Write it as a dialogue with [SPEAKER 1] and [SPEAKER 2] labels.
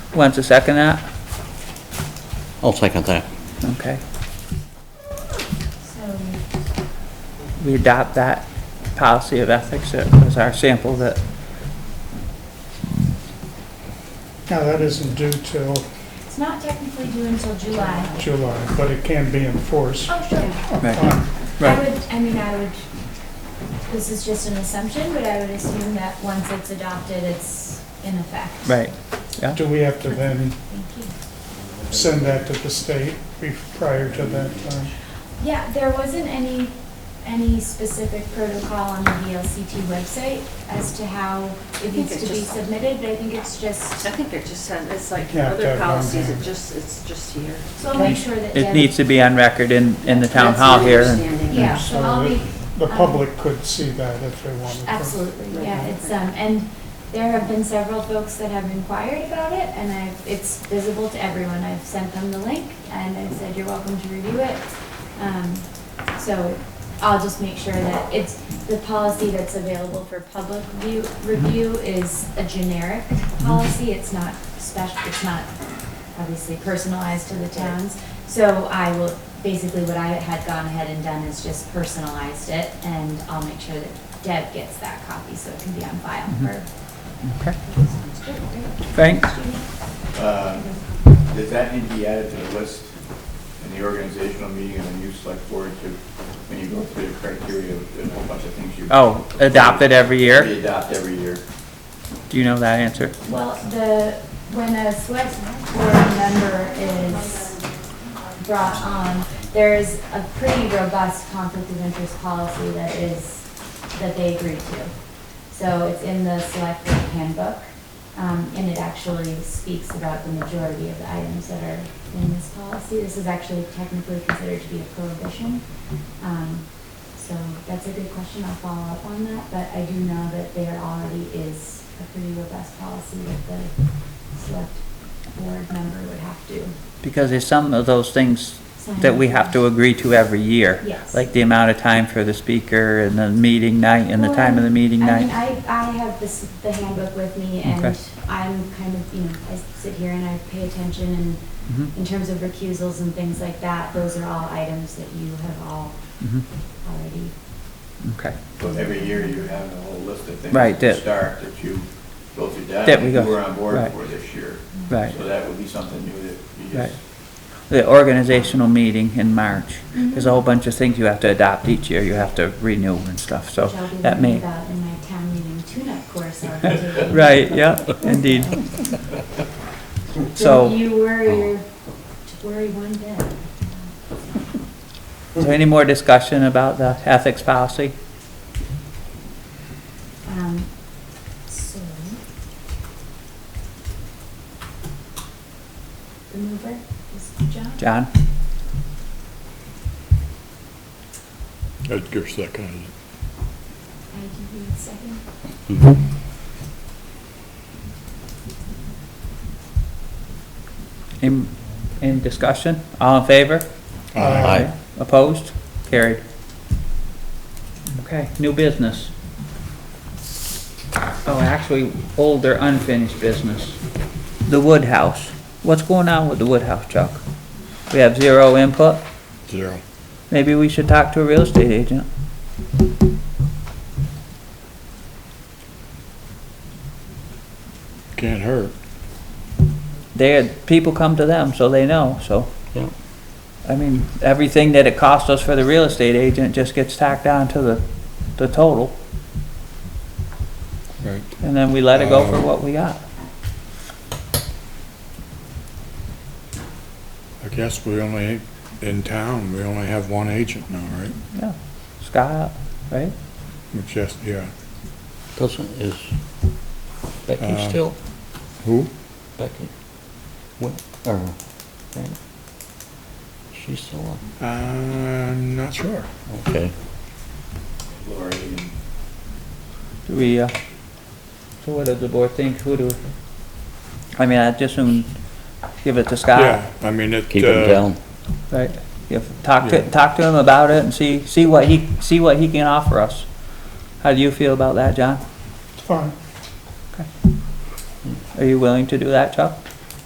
[SPEAKER 1] wants to second that?
[SPEAKER 2] I'll second that.
[SPEAKER 1] Okay,
[SPEAKER 3] So,
[SPEAKER 1] we adopt that policy of ethics as our sample that,
[SPEAKER 4] Now, that isn't due till
[SPEAKER 3] it's not technically due until July.
[SPEAKER 4] July, but it can be enforced.
[SPEAKER 3] Oh, sure.
[SPEAKER 4] upon-
[SPEAKER 3] I
[SPEAKER 1] right,
[SPEAKER 3] would, I mean, I would, this is just an assumption, but I would assume that once it's adopted, it's in effect.
[SPEAKER 1] right.
[SPEAKER 4] Do we have to then
[SPEAKER 3] Thank you.
[SPEAKER 4] send that to the state be- prior to that time?
[SPEAKER 3] Yeah, there wasn't any, any specific protocol on the VLCT website as to how it
[SPEAKER 5] think
[SPEAKER 3] needs
[SPEAKER 5] it's
[SPEAKER 3] to be
[SPEAKER 5] just-
[SPEAKER 3] submitted, but I think it's just,
[SPEAKER 5] I think it just said, it's like
[SPEAKER 4] Yeah, that
[SPEAKER 5] other
[SPEAKER 4] one
[SPEAKER 5] policies,
[SPEAKER 4] there.
[SPEAKER 5] it just, it's just here.
[SPEAKER 3] so I'll make sure that.
[SPEAKER 1] It
[SPEAKER 3] Deb-
[SPEAKER 1] needs to be on record in, in the town
[SPEAKER 5] That's my
[SPEAKER 1] hall here. and-
[SPEAKER 5] understanding.
[SPEAKER 3] Yeah, so I'll be, um,
[SPEAKER 4] The public could see that if they wanted to.
[SPEAKER 3] absolutely, yeah, it's, um, and there have been several folks that have inquired about it, and I've, it's visible to everyone. I've sent them the link, and I've said, you're welcome to review it. Um, so I'll just make sure that it's, the policy that's available for public view, review is a generic policy. It's not special, it's not obviously personalized to the towns. So I will, basically what I had gone ahead and done is just personalized it and I'll make sure that Deb gets that copy so it can be on file for.
[SPEAKER 1] Okay. Frank?
[SPEAKER 6] Uh, Does that need to be added to the list in the organizational meeting and the new select board to, when you go through the criteria, there's a whole bunch of things you.
[SPEAKER 1] Oh, adopted every
[SPEAKER 6] We
[SPEAKER 1] year?
[SPEAKER 6] adopt every year.
[SPEAKER 1] Do you know that answer?
[SPEAKER 3] Well, the, when a select board member is brought on, there is a pretty robust conflict of interest policy that is, that they agree to. So it's in the select board handbook, um, and it actually speaks about the majority of the items that are in this policy. This is actually technically considered to be a prohibition. Um, so that's a good question, I'll follow up on that, but I do know that there already is a pretty robust policy that the select board member would have to
[SPEAKER 1] Because there's some of those things
[SPEAKER 3] sign.
[SPEAKER 1] that we have to agree to every year.
[SPEAKER 3] Yes.
[SPEAKER 1] Like the amount of time for the speaker and the meeting night and the time of the meeting
[SPEAKER 3] Well, I mean,
[SPEAKER 1] night.
[SPEAKER 3] I, I have this, the handbook with me
[SPEAKER 1] Okay.
[SPEAKER 3] and I'm kind of, you know, I sit here and I pay attention and
[SPEAKER 1] Mhm,
[SPEAKER 3] in terms of recusals and things like that, those are all items that you have all
[SPEAKER 1] mhm,
[SPEAKER 3] already.
[SPEAKER 1] Okay,
[SPEAKER 6] So every year you have a whole list of things.
[SPEAKER 1] Right,
[SPEAKER 6] to
[SPEAKER 1] that-
[SPEAKER 6] Start that you go through that.
[SPEAKER 1] That we go-
[SPEAKER 6] You were on board
[SPEAKER 1] right.
[SPEAKER 6] for this year.
[SPEAKER 1] right.
[SPEAKER 6] So that would be something new that you
[SPEAKER 1] Right.
[SPEAKER 6] just.
[SPEAKER 1] The organizational meeting in March. There's a whole bunch of things you have to adopt each year. You have to renew and stuff, so
[SPEAKER 3] Which I'll be
[SPEAKER 1] that
[SPEAKER 3] learning
[SPEAKER 1] may,
[SPEAKER 3] about in my town meeting tune-up course. I'll be taking.
[SPEAKER 1] right, yeah, indeed.
[SPEAKER 3] Don't
[SPEAKER 1] So,
[SPEAKER 3] you worry, your- worry one bit.
[SPEAKER 1] so any more discussion about the ethics policy?
[SPEAKER 3] Um, so. The mover is John.
[SPEAKER 1] John?
[SPEAKER 7] Edgar seconded
[SPEAKER 3] I can read second.
[SPEAKER 7] it.
[SPEAKER 1] In, in discussion? All in favor?
[SPEAKER 2] Aye.
[SPEAKER 1] Opposed? Carried. Okay, new business. Oh, actually, older unfinished business. The Woodhouse. What's going on with the Woodhouse, Chuck? We have zero input.
[SPEAKER 7] Zero.
[SPEAKER 1] Maybe we should talk to a real estate agent.
[SPEAKER 7] Can't hurt.
[SPEAKER 1] They, people come to them, so they know, so.
[SPEAKER 2] Yeah.
[SPEAKER 1] I mean, everything that it cost us for the real estate agent just gets tacked on to the, the total,
[SPEAKER 7] Right.
[SPEAKER 1] and then we let it go for
[SPEAKER 7] Um,
[SPEAKER 1] what we got.
[SPEAKER 7] I guess we only, in town, we only have one agent now, right?
[SPEAKER 1] Yeah, Scott, right?
[SPEAKER 7] Which just, yeah.
[SPEAKER 2] Doesn't, is Becky
[SPEAKER 7] Uh,
[SPEAKER 2] still?
[SPEAKER 7] Who?
[SPEAKER 2] Becky? What, or, right? She's still on?
[SPEAKER 7] Uh, I'm not sure.
[SPEAKER 2] Okay.
[SPEAKER 6] Lori and
[SPEAKER 1] Do we, uh, so what does the board think? Who do, I mean, I just assume give it to Scott,
[SPEAKER 7] Yeah, I mean, it.
[SPEAKER 2] Keep
[SPEAKER 7] uh,
[SPEAKER 2] him down.
[SPEAKER 1] right? If, talk to,
[SPEAKER 7] Yeah.
[SPEAKER 1] talk to him about it and see, see what he, see what he can offer us. How do you feel about that, John?
[SPEAKER 4] It's fine.
[SPEAKER 1] Are you willing to do that, Chuck?